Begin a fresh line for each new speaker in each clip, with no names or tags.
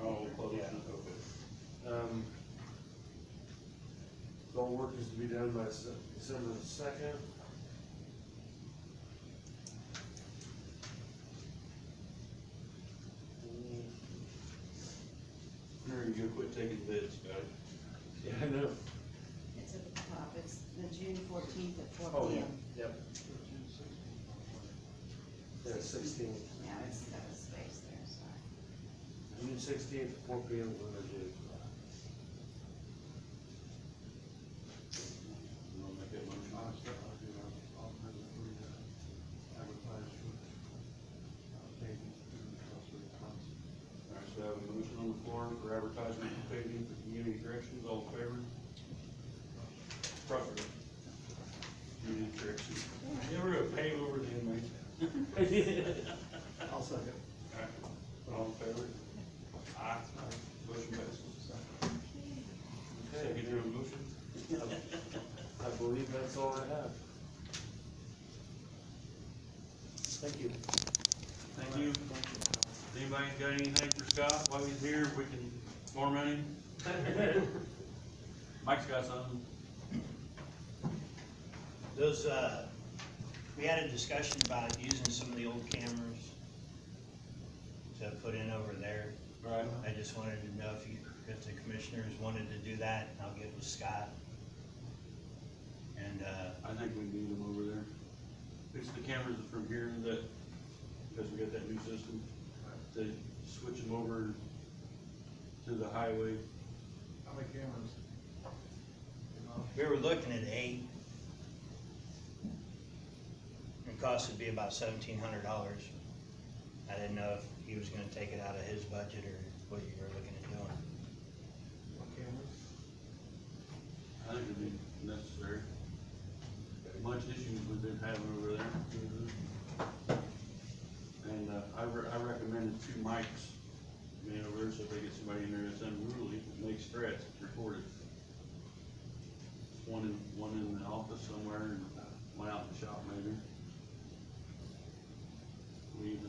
Oh, close,
Yeah.
okay.
Um, so all work is to be done by Se- December the second.
Mary, you quit taking bids, guys.
Yeah, I know.
It's at the top, it's the June fourteenth at four
Oh,
P
yeah,
M.
yep. Yeah, sixteenth,
Yeah, it's got a space there, sorry.
June sixteenth, four P M, when I do.
You wanna make that motion? All right, so I have a motion on the floor for advertisement for paving for community corrections, all in favor? Proper. Community corrections. You ever gonna pave over the inmates?
I'll second.
All right, All in favor? Aye. Motion passes. Second your motion?
I believe that's all I have. Thank you.
Thank you. Anybody got anything for Scott while he's here, we can, more money? Mike's got something.
Those, uh, we had a discussion about using some of the old cameras to put in over there.
Right.
I just wanted to know if you, if the commissioners wanted to do that, and I'll get with Scott. And, uh,
I think we need them over there. Fix the cameras from here that, because we got that new system, to switch them over to the highway.
How many cameras?
we were looking at eight. It cost would be about seventeen hundred dollars. I didn't know if he was gonna take it out of his budget or what you were looking at doing.
What cameras?
I think it'd be necessary. Much issues we've been having over there. And, uh, I re- I recommended two mics, man, over there, so if they get somebody in there that's unruly, makes threats, it's recorded. One in, one in the office somewhere and one out in the shop maybe. We even,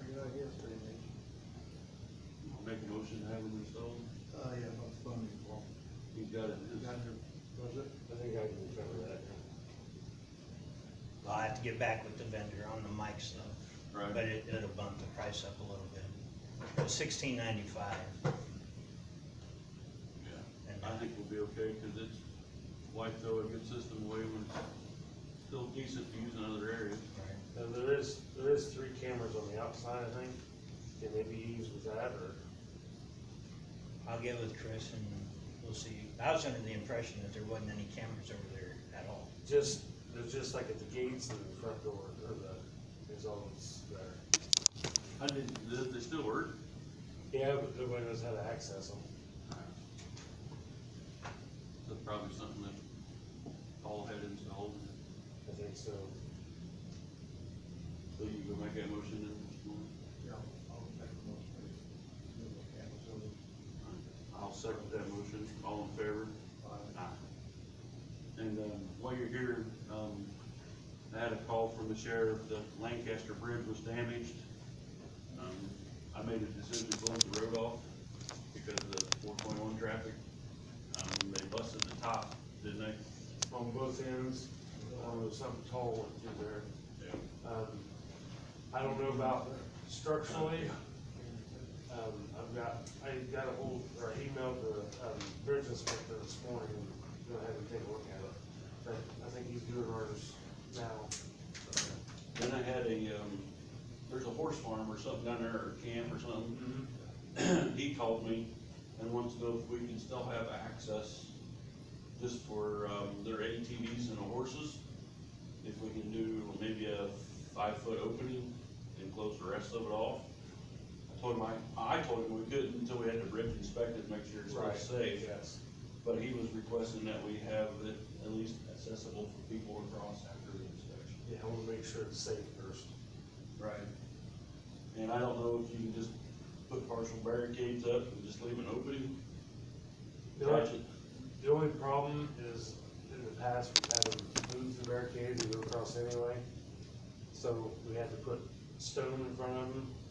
I got ideas for anything.
make a motion to have them installed,
Uh, yeah, about the funding.
he's got it, in
You
his-
got your budget?
I think I can cover that
I'll have to get back with the vendor on the mic stuff.
Right.
But it, it'll bump the price up a little bit. Sixteen ninety-five,
Yeah, I think we'll be okay, cause it's, why throw a good system away when it's still decent to use in other areas?
right?
Now, there is, there is three cameras on the outside, I think, can they be used with that, or?
I'll get with Chris and we'll see. I was under the impression that there wasn't any cameras over there at all.
Just, there's just like at the gates and the front door, or the, is always there.
I didn't, does it still work?
Yeah, but nobody knows how to access them.
That's probably something that Paul had installed,
I think so.
so you can make that motion and
Yeah. I'll make the most. Move the cameras over.
I'll second that motion, all in favor?
Aye.
Uh, And, um, while you're here, um, I had a call from the sheriff that Lancaster Bridge was damaged. Um, I made a decision to close the road off because of the four point one traffic. Um, they busted the top, didn't they?
On both ends, or was something tall went through there.
Yeah.
Um, I don't know about structurally. Um, I've got, I got a hold, or emailed the, um, bridge inspector this morning, and go ahead and take a look at it. But I think he's doing ours now.
Then I had a, um, there's a horse farm or something down there, or camp or something. He called me and wants to know if we can still have access just for, um, their ATVs and the horses. If we can do maybe a five-foot opening and close the rest of it off. I told him, I, I told him we couldn't until we had the bridge inspected, make sure it's still safe.
Yes.
But he was requesting that we have it at least accessible for people to cross after the inspection.
Yeah, I wanna make sure it's safe first.
Right. And I don't know if you can just put partial barricades up and just leave an opening.
The only-
Gotcha.
The only problem is, in the past, we've had them move the barricades and go across anyway. So we had to put stone in front of them,